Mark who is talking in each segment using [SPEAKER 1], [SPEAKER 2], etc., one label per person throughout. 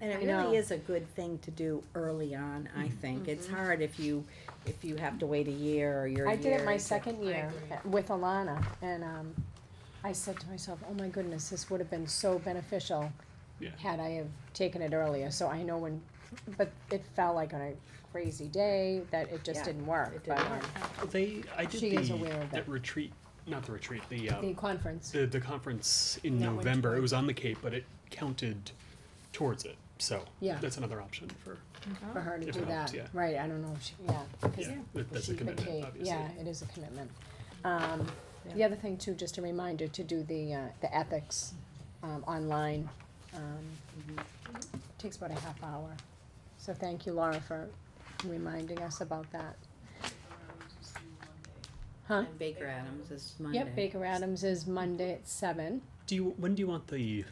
[SPEAKER 1] And it
[SPEAKER 2] I know. Mm-hmm.
[SPEAKER 1] really is a good thing to do early on, I think. It's hard if you, if you have to wait a year or you're a
[SPEAKER 2] I
[SPEAKER 1] year.
[SPEAKER 2] did it my
[SPEAKER 1] into-
[SPEAKER 2] second
[SPEAKER 3] I
[SPEAKER 2] year
[SPEAKER 3] agree.
[SPEAKER 2] with Alana, and, um, I said to myself, oh my goodness, this would have been so beneficial
[SPEAKER 4] Yeah.
[SPEAKER 2] had I have taken it earlier, so I know when, but it felt like on a crazy day that it just
[SPEAKER 1] Yeah,
[SPEAKER 2] didn't work,
[SPEAKER 1] it
[SPEAKER 2] but,
[SPEAKER 1] didn't
[SPEAKER 2] um,
[SPEAKER 4] Well, They, I did
[SPEAKER 2] She is
[SPEAKER 4] the,
[SPEAKER 2] aware of
[SPEAKER 4] that
[SPEAKER 2] it.
[SPEAKER 4] retreat, not the retreat, the, uh,
[SPEAKER 2] the conference.
[SPEAKER 4] the, the conference in
[SPEAKER 2] That went
[SPEAKER 4] November.
[SPEAKER 2] toward-
[SPEAKER 4] It was on the Cape, but it counted towards it. So
[SPEAKER 2] Yeah.
[SPEAKER 4] that's another option for,
[SPEAKER 2] for her to
[SPEAKER 4] If
[SPEAKER 2] do
[SPEAKER 4] not,
[SPEAKER 2] that,
[SPEAKER 4] yeah.
[SPEAKER 2] right, I don't know if she, yeah, 'cause
[SPEAKER 4] yeah, that- that's
[SPEAKER 2] she-
[SPEAKER 4] a
[SPEAKER 2] the
[SPEAKER 4] commitment,
[SPEAKER 2] K-
[SPEAKER 4] obviously.
[SPEAKER 2] yeah, it is a commitment. Um, the
[SPEAKER 1] Yeah.
[SPEAKER 2] other thing too, just a reminder to do the, uh, the ethics, um, online, um, takes about a half hour. So thank you Laura for reminding us about that. Huh?
[SPEAKER 1] And Baker Adams is Monday.
[SPEAKER 2] Yep, Baker Adams is Monday at seven,
[SPEAKER 4] Do you, when do you want the,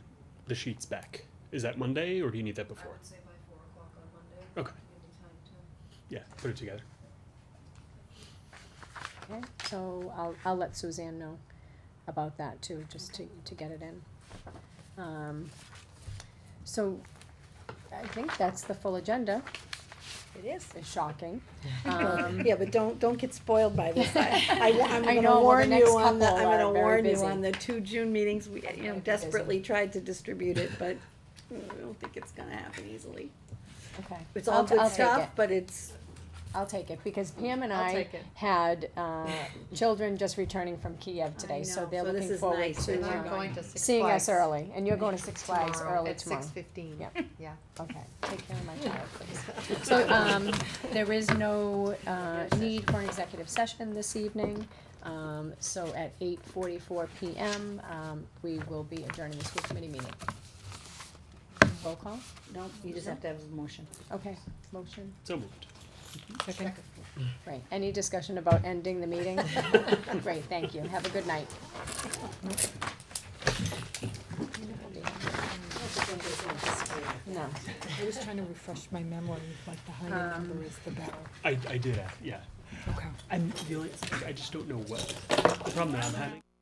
[SPEAKER 4] the sheets back? Is that Monday or do you need that
[SPEAKER 3] I
[SPEAKER 4] before?
[SPEAKER 3] would say by four o'clock on Monday.
[SPEAKER 4] Okay.
[SPEAKER 3] Give me time to.
[SPEAKER 4] Yeah, put it together.
[SPEAKER 2] okay, so I'll, I'll let Suzanne know about that too, just to, to get it in. Um, so I think that's the full agenda.
[SPEAKER 1] It is.
[SPEAKER 2] is shocking. Um,
[SPEAKER 1] Yeah, but don't, don't get spoiled by this. I, I, wa- I'm
[SPEAKER 2] I
[SPEAKER 1] gonna
[SPEAKER 2] know, well, the
[SPEAKER 1] warn
[SPEAKER 2] next
[SPEAKER 1] you on the,
[SPEAKER 2] couple
[SPEAKER 1] I'm
[SPEAKER 2] are
[SPEAKER 1] gonna
[SPEAKER 2] very
[SPEAKER 1] warn you
[SPEAKER 2] busy.
[SPEAKER 1] on the two June meetings, we, you
[SPEAKER 2] I'm
[SPEAKER 1] know,
[SPEAKER 2] gonna be busy.
[SPEAKER 1] desperately tried to distribute it, but I don't think it's gonna happen easily.
[SPEAKER 2] okay.
[SPEAKER 1] It's
[SPEAKER 2] I'll-
[SPEAKER 1] all good
[SPEAKER 2] I'll take
[SPEAKER 1] stuff,
[SPEAKER 2] it.
[SPEAKER 1] but it's,
[SPEAKER 2] I'll take it because Pam and
[SPEAKER 3] I'll
[SPEAKER 2] I
[SPEAKER 3] take it.
[SPEAKER 2] had uh, children just returning from Kiev today, so
[SPEAKER 1] know,
[SPEAKER 2] they're
[SPEAKER 1] so this
[SPEAKER 2] looking
[SPEAKER 1] is
[SPEAKER 2] forward
[SPEAKER 1] nice.
[SPEAKER 2] to
[SPEAKER 1] And I'm
[SPEAKER 2] uh,
[SPEAKER 1] going to
[SPEAKER 2] seeing us early. And you're going to Six Flags early tomorrow.
[SPEAKER 3] fifteen.
[SPEAKER 2] Yep.
[SPEAKER 3] Yeah.
[SPEAKER 2] Okay, take care of my child, please. So, um, there is no, uh, need for an executive session this evening. Um, so at eight forty-four PM, um, we will be adjourning the school committee meeting. Roll call?
[SPEAKER 1] no, you just have to have a motion.
[SPEAKER 2] Okay, motion.
[SPEAKER 4] So moved.
[SPEAKER 2] Right, any discussion about ending the meeting? Great, thank you, have a good night. No,
[SPEAKER 5] I was trying to refresh my memory, like the higher number is the better.
[SPEAKER 4] I, I did, uh, yeah.
[SPEAKER 5] Okay.
[SPEAKER 4] I'm feeling, I just don't know what, the problem that I'm having.